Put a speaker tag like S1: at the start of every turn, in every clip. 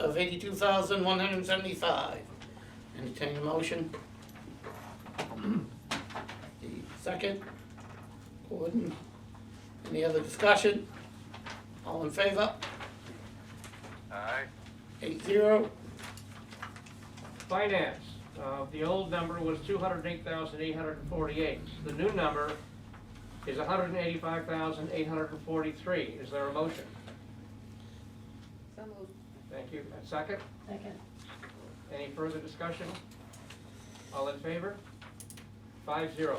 S1: of eighty-two thousand, one hundred and seventy-five. Entertain a motion. The Second, Gordon. Any other discussion? All in favor?
S2: Aye.
S1: Eight zero.
S3: Finance, uh, the old number was two hundred eight thousand eight hundred and forty-eight. The new number is hundred and eighty-five thousand eight hundred and forty-three. Is there a motion?
S4: So moved.
S3: Thank you. A second?
S4: Second.
S3: Any further discussion? All in favor? Five zero.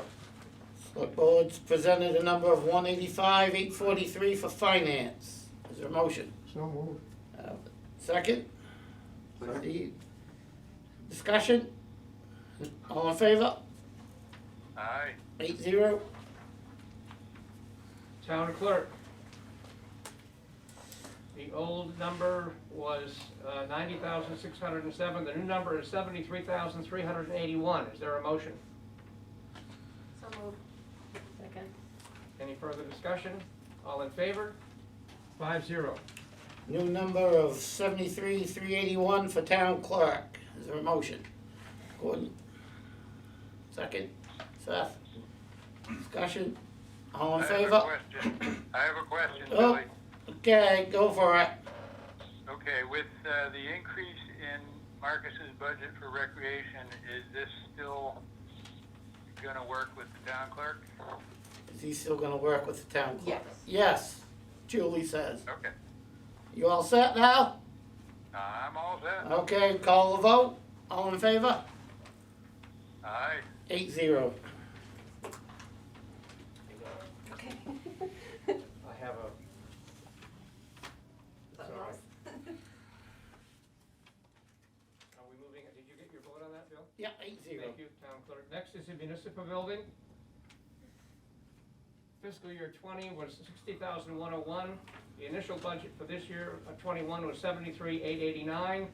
S1: Select Board's presented a number of one eighty-five, eight forty-three for finance. Is there a motion?
S5: So moved.
S1: Uh, Second? Steve. Discussion? All in favor?
S2: Aye.
S1: Eight zero.
S3: Town clerk. The old number was uh, ninety thousand six hundred and seven. The new number is seventy-three thousand three hundred and eighty-one. Is there a motion?
S4: So moved. Second.
S3: Any further discussion? All in favor? Five zero.
S1: New number of seventy-three, three eighty-one for town clerk. Is there a motion? Gordon? Second. Seth? Discussion? All in
S2: I have
S1: favor?
S2: a question. I have a question,
S1: Oh.
S2: Billy.
S1: Okay, go for it.
S2: Okay, with uh, the increase in Marcus's budget for recreation, is this still gonna work with the town clerk?
S1: Is he still gonna work with the town clerk?
S4: Yes.
S1: Yes, Julie says.
S2: Okay,
S1: You all set now?
S2: I'm all set.
S1: Okay, call the vote. All in favor?
S2: Aye.
S1: Eight zero.
S4: Okay.
S3: I have a. It's all right. Are we moving, did you get your vote on that, Bill?
S1: Yeah, eight zero.
S3: Thank you, Town Clerk. Next is the municipal building. Fiscal year twenty was sixty thousand one oh one. The initial budget for this year, uh, twenty-one, was seventy-three eight eighty-nine.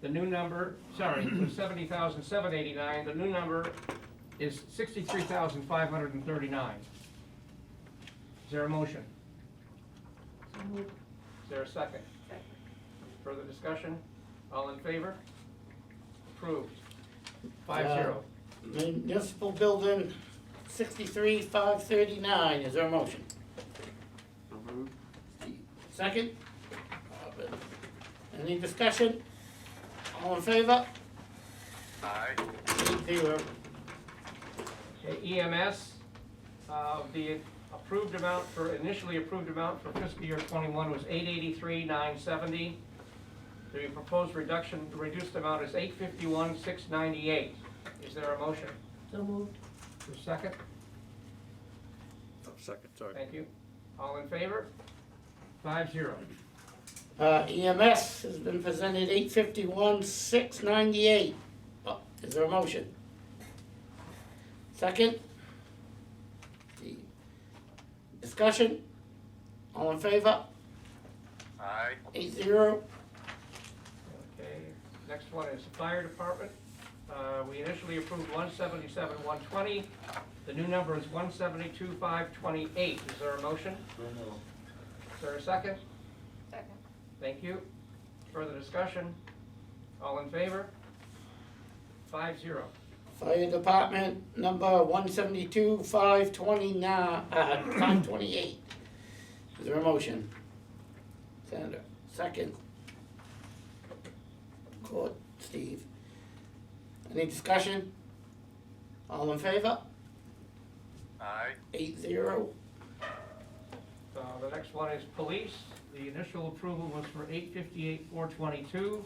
S3: The new number, sorry, was seventy thousand seven eighty-nine. The new number is sixty-three thousand five hundred and thirty-nine. Is there a motion?
S4: So moved.
S3: Is there a second?
S4: Second.
S3: Further discussion? All in favor? Approved. Five zero.
S1: Municipal building, sixty-three, five thirty-nine. Is there a motion? Second? Any discussion? All in favor?
S2: Aye.
S1: Eight zero.
S3: Okay, EMS, E uh, the approved amount for, initially approved amount for fiscal year twenty-one was eight eighty-three, nine seventy. The proposed reduction, reduced amount is eight fifty-one, six ninety-eight. Is there a motion?
S4: So moved.
S3: Is there a second?
S5: Second, sorry.
S3: Thank you. All in favor? Five zero.
S1: Uh, EMS has been presented eight fifty-one, six ninety-eight. Oh, Is there a motion? Second? Discussion? All in favor?
S2: Aye.
S1: Eight zero.
S3: Okay, next one is fire department. Uh, we initially approved one seventy-seven, one twenty. The new number is one seventy-two, five twenty-eight. Is there a motion? Is there a second?
S4: Second.
S3: Thank you. Further discussion? All in favor? Five zero.
S1: Fire Department, number one seventy-two, five twenty-nine, uh, five twenty-eight. Is there a motion? Sandra, second. Court, Steve. Any discussion? All in favor?
S2: Aye.
S1: Eight zero.
S3: Uh, the next one is police. The initial approval was for eight fifty-eight, four twenty-two.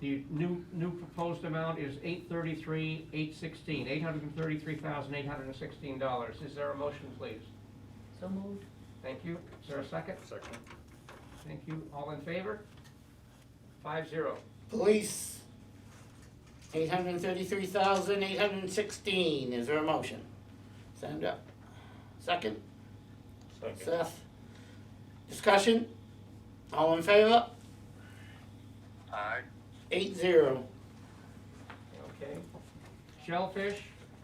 S3: The new, new proposed amount is eight thirty-three, eight sixteen, eight hundred and thirty-three thousand, eight hundred and sixteen dollars. Is there a motion, please?
S4: So moved.
S3: Thank you. Is there a second?
S5: Second.
S3: Thank you. All in favor? Five zero.
S1: Police, eight hundred and thirty-three thousand, eight hundred and sixteen. Is there a motion? Sandra, second. Seth. Discussion? All in favor?
S2: Aye.
S1: Eight zero.
S3: Okay. Shellfish,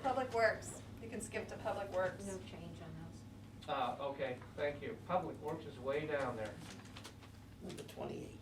S6: Public Works, you can skip to Public Works.
S4: No change on those.
S3: uh, okay, thank you. Public Works is way down there.
S1: Number twenty-eight.